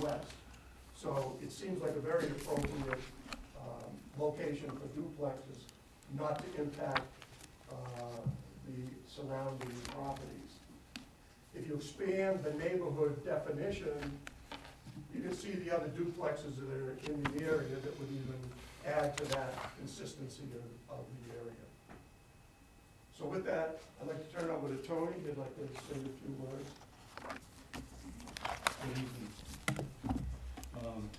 west. So it seems like a very appropriate um, location for duplexes, not to impact uh, the surrounding properties. If you expand the neighborhood definition, you can see the other duplexes that are in the area that would even add to that consistency of, of the area. So with that, I'd like to turn it over to Tony, he'd like to say a few words. Good evening. Um,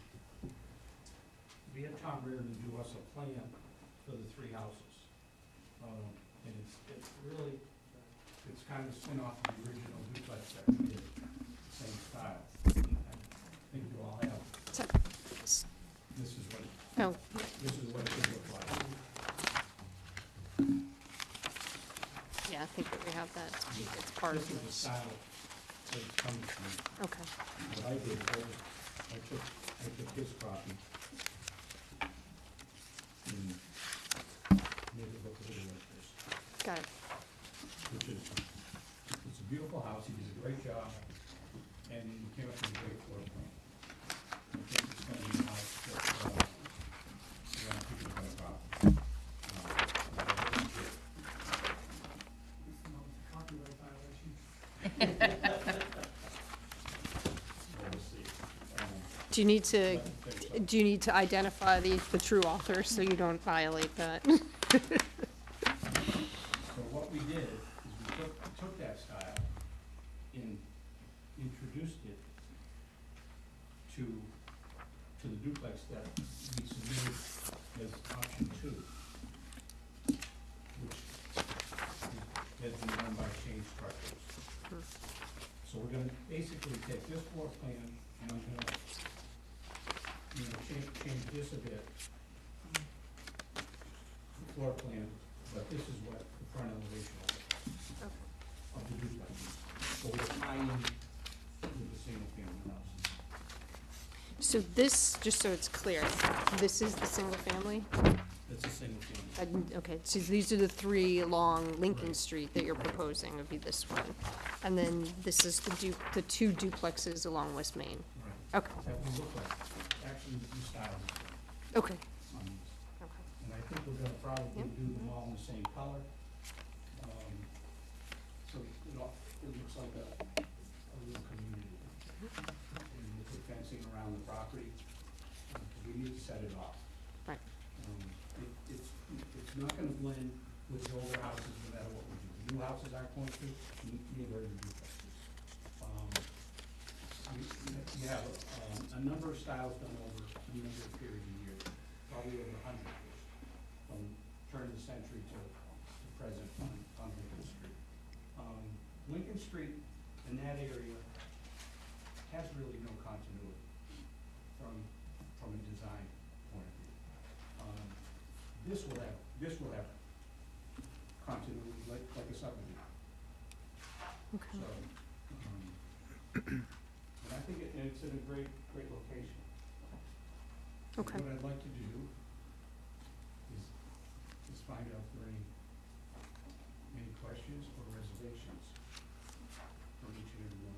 We had Tom Reardon do us a plan for the three houses. Um, And it's, it's really, it's kind of spin off of the original duplex that we did, same style. I think you all have, this is what, Oh, this is what it should look like. yeah, I think that we have that. It's part This is of the this. style that it's coming from. Okay. What I did, I just- I took, I took his copy. And made it look a little like this, Got it. which is, it's a beautiful house, he did a great job, and he came up with a great floor plan. I think it's gonna be a house that, uh, a lot of people are gonna buy. Uh, Copyright violation. We'll see. Um, Do you need to, but there's a- do you need to identify the, the true author so you don't violate that? So what we did is we took, took that style and introduced it to, to the duplex that we submitted as option two, which has been done by Shane Structures. Hmm. So we're gonna basically take this floor plan and I'm gonna, you know, change, change this a bit. The Floor plan, but this is what the front elevation will look Okay. of the duplex. So we're tying with the single family houses. So this, just so it's clear, this is the single family? It's a single family. I didn't- Okay, so these are the three along Lincoln Right. Street that you're proposing would be this one. And then this is the du, the two duplexes along West Main. Right. Okay, That would look like, actually, two styles okay, on these. okay. And I think we're gonna probably Yep. do them all in the same color. Um, So it all, it looks like a, a little community. And with the fencing around the property, uh, we need to set it off. Right. Um, it- It's, it's not gonna blend with the older houses, no matter what we do. The New houses aren't going to, n- neither are the duplexes. Um, You you have um, a number of styles done over a number of periods of years, probably over a hundred years, from turn of the century to to present on on Lincoln Street. Um, Lincoln Street in that area has really no continuity from, from a design point of view. Um, This will have, this will have continuity like, like a subdivision. Okay. So, um, and I think it, and it's in a great, great location. And Okay. What I'd like to do is, is find out if there are any, any questions or reservations from each and every one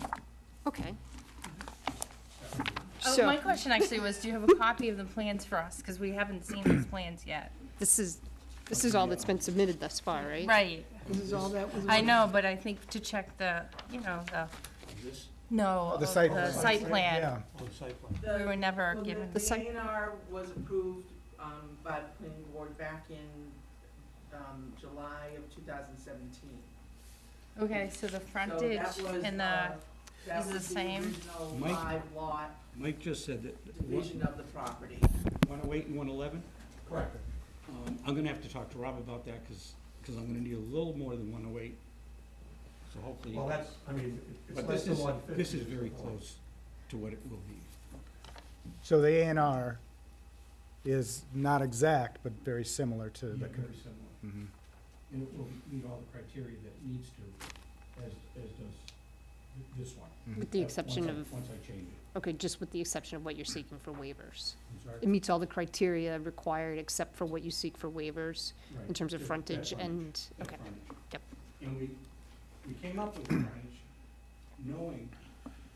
of them. Okay, That would be- So- Oh, my question actually was, do you have a copy of the plans for us? Because we haven't seen these plans yet. this is, this is all that's been submitted thus far, right? Right. This is all that was. I know, but I think to check the, you know, the, This, no, The of site the plan. site plan. on site plan. We were never Well, given. The The site- A and R was approved um, by the planning board back in um, July of 2017. Okay, so the So frontage that was, and the, uh, that is the was same? original Mike? five lot Mike just said that division of the property. one oh eight and one eleven? Correct. Um, I'm gonna have to talk to Rob about that, cause, 'cause I'm gonna need a little more than one oh eight. So hopefully. Well, that's, I mean, it's But less this than is, one fifty. this is very close to what it will be. So the A and R is not exact, but very similar to the. con- similar. Mhm. And it will meet all the criteria that it needs to, as, as does th- this one. With the Uh, exception once I- of, Once I change it, okay, just with the exception of what you're seeking for waivers. I'm sorry. It meets all the criteria required except for what you seek for waivers in Right. terms of That- that frontage and, that okay, frontage. yep. And we, we came up with the frontage knowing